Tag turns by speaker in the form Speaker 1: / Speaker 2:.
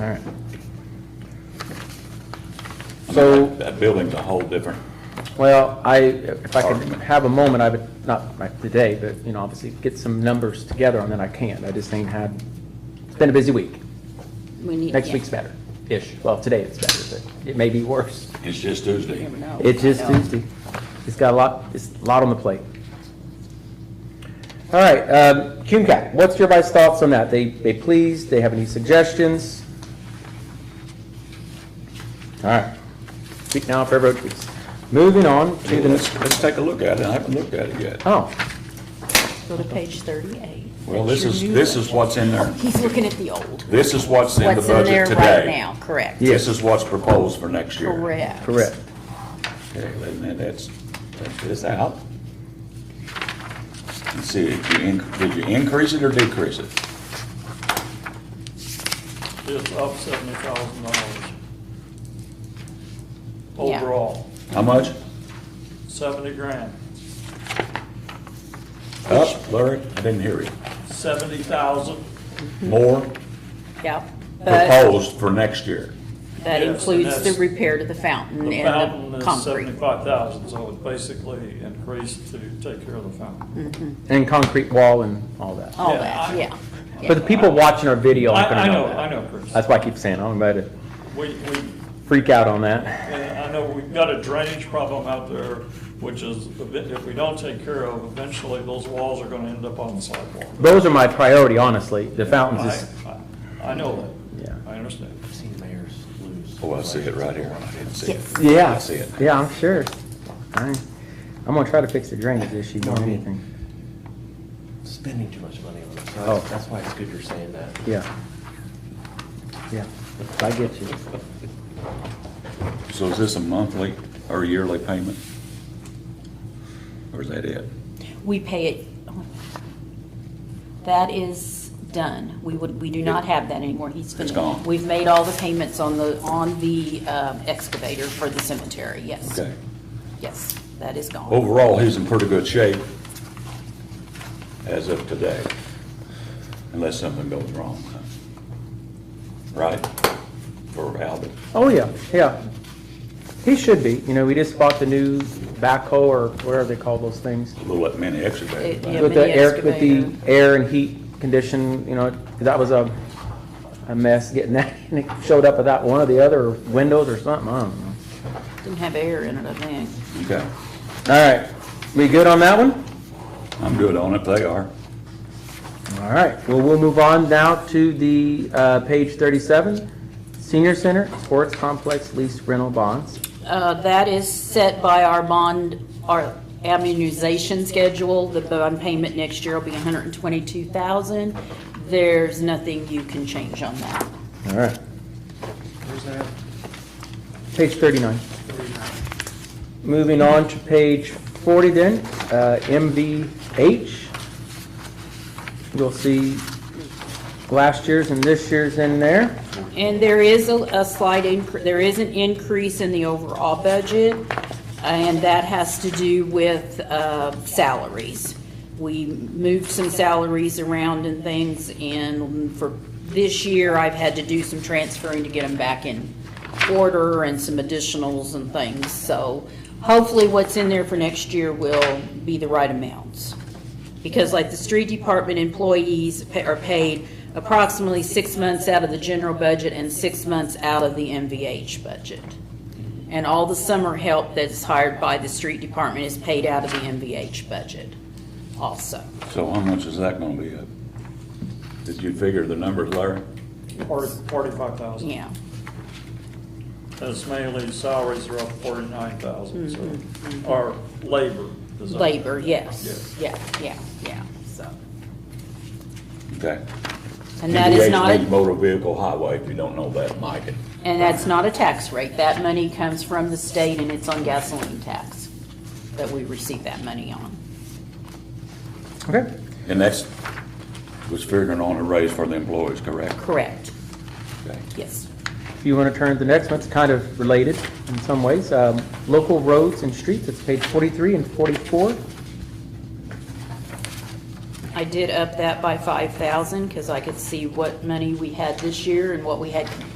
Speaker 1: All right. So,
Speaker 2: That building's a whole different,
Speaker 1: well, I, if I could
Speaker 2: Argument.
Speaker 1: have a moment, I would, not like today, but, you know, obviously get some numbers together and then I can't. I just ain't had, it's been a busy week.
Speaker 3: We need-
Speaker 1: Next
Speaker 3: yeah.
Speaker 1: week's better-ish. Well, today it's better, but it may be worse.
Speaker 2: it's just Tuesday.
Speaker 3: Never know.
Speaker 1: It's just
Speaker 3: I know.
Speaker 1: Tuesday. It's got a lot, it's a lot on the plate. All right, um, CUMCAC, what's your guys' thoughts on that? They, they pleased, they have any suggestions? All right, speak now for everyone, please. Moving on to the,
Speaker 2: Let's, let's take a look at it, I haven't looked at it yet.
Speaker 1: oh,
Speaker 3: Go to page thirty-eight.
Speaker 2: Well, this is, this is what's in there,
Speaker 3: He's looking at the old.
Speaker 2: this is what's in the
Speaker 3: What's in there
Speaker 2: budget
Speaker 3: right
Speaker 2: today.
Speaker 3: now, correct?
Speaker 1: Yeah.
Speaker 2: This is what's proposed for next year.
Speaker 3: Correct.
Speaker 1: correct.
Speaker 2: Okay, wait a minute, that's, that's this out. Let's see, did you, in- did you increase it or decrease it?
Speaker 4: It's up seventy thousand dollars.
Speaker 3: Yeah.
Speaker 4: Overall,
Speaker 2: How much?
Speaker 4: seventy grand,
Speaker 2: Up, Larry? I didn't hear you.
Speaker 4: seventy thousand.
Speaker 2: More
Speaker 3: Yep. But
Speaker 2: proposed for next year.
Speaker 3: that
Speaker 4: Yes, and
Speaker 3: includes the
Speaker 4: that's-
Speaker 3: repair to the fountain
Speaker 4: The
Speaker 3: and
Speaker 4: fountain
Speaker 3: the
Speaker 4: is
Speaker 3: concrete.
Speaker 4: seventy-five thousand, so it basically increased to take care of the fountain.
Speaker 1: And concrete wall and all that.
Speaker 3: All
Speaker 4: Yeah,
Speaker 3: that,
Speaker 4: I-
Speaker 3: Oh, yeah.
Speaker 1: But the people watching our video
Speaker 4: I,
Speaker 1: aren't
Speaker 4: I
Speaker 1: gonna know
Speaker 4: know,
Speaker 1: that.
Speaker 4: I know, Chris.
Speaker 1: That's why I keep saying, I'm about to
Speaker 4: We, we,
Speaker 1: freak out on that.
Speaker 4: And I know we've got a drainage problem out there, which is, if we don't take care of, eventually those walls are gonna end up on the sidewalk.
Speaker 1: Those are my priority, honestly, the fountains
Speaker 4: I,
Speaker 1: is,
Speaker 4: I I know
Speaker 1: Yeah.
Speaker 4: that. I understand.
Speaker 5: seen mayors lose.
Speaker 2: Oh, I see it right here. I didn't see it.
Speaker 1: Yeah.
Speaker 2: I see it.
Speaker 1: Yeah, I'm sure. I- I'm gonna try to fix the drainage issue more than anything.
Speaker 5: Spending too much money on it, so
Speaker 1: Oh.
Speaker 5: that's- that's why it's good you're saying that.
Speaker 1: Yeah. Yeah, I get you.
Speaker 2: So is this a monthly or yearly payment? Or is that it?
Speaker 3: We pay it, that is done. We would, we do not have that anymore. He's finished.
Speaker 2: gone.
Speaker 3: We've made all the payments on the, on the um, excavator for the cemetery, yes.
Speaker 2: Okay.
Speaker 3: Yes, that is gone.
Speaker 2: Overall, he's in pretty good shape as of today, unless something goes wrong. Right? For Albert.
Speaker 1: Oh, yeah, yeah. He should be, you know, we just bought the new backhoe or whatever they call those things.
Speaker 2: A little mini excavator.
Speaker 3: It- yeah.
Speaker 2: but
Speaker 1: With the
Speaker 3: mini
Speaker 1: air, with the
Speaker 3: excavator.
Speaker 1: air and heat condition, you know, that was a, a mess getting that. And it showed up without one of the other windows or something, I don't know.
Speaker 3: Didn't have air in it, I think.
Speaker 2: Okay,
Speaker 1: All right, we good on that one?
Speaker 2: I'm good on it, they are.
Speaker 1: All right, well, we'll move on now to the, uh, page thirty-seven, Senior Center Sports Complex Lease Rental Bonds.
Speaker 3: Uh, That is set by our bond, our amortization schedule. The bond payment next year will be $122,000. There's nothing you can change on that.
Speaker 1: All right. Page thirty-nine. Moving on to page forty then, uh, MVH. You'll see last year's and this year's in there.
Speaker 3: And there is a a slight, incre- there is an increase in the overall budget, and that has to do with uh, salaries. We moved some salaries around and things, and for this year, I've had to do some transferring to get them back in order and some additionals and things. So hopefully, what's in there for next year will be the right amounts because like the street department employees pa- are paid approximately six months out of the general budget and six months out of the MVH budget. And all the summer help that's hired by the street department is paid out of the MVH budget also.
Speaker 2: So how much is that gonna be up? Did you figure the numbers, Larry?
Speaker 4: Forty-five thousand.
Speaker 3: Yeah,
Speaker 4: As mainly salaries are up forty-nine thousand, so, or labor is up.
Speaker 3: labor, yes, yeah, yeah, yeah, so.
Speaker 2: Okay.
Speaker 3: And that is not,
Speaker 2: MVH means
Speaker 3: a-
Speaker 2: motor vehicle highway, if you don't know that, Mike. it-
Speaker 3: and that's not a tax rate. That money comes from the state and it's on gasoline tax that we receive that money on.
Speaker 1: Okay.
Speaker 2: And that's, was figuring on a raise for the employees, correct?
Speaker 3: Correct,
Speaker 2: Okay.
Speaker 3: yes.
Speaker 1: If you want to turn to the next one, it's kind of related in some ways. Um, Local roads and streets, it's page 43 and 44.
Speaker 3: I did up that by five thousand, cause I could see what money we had this year and what we had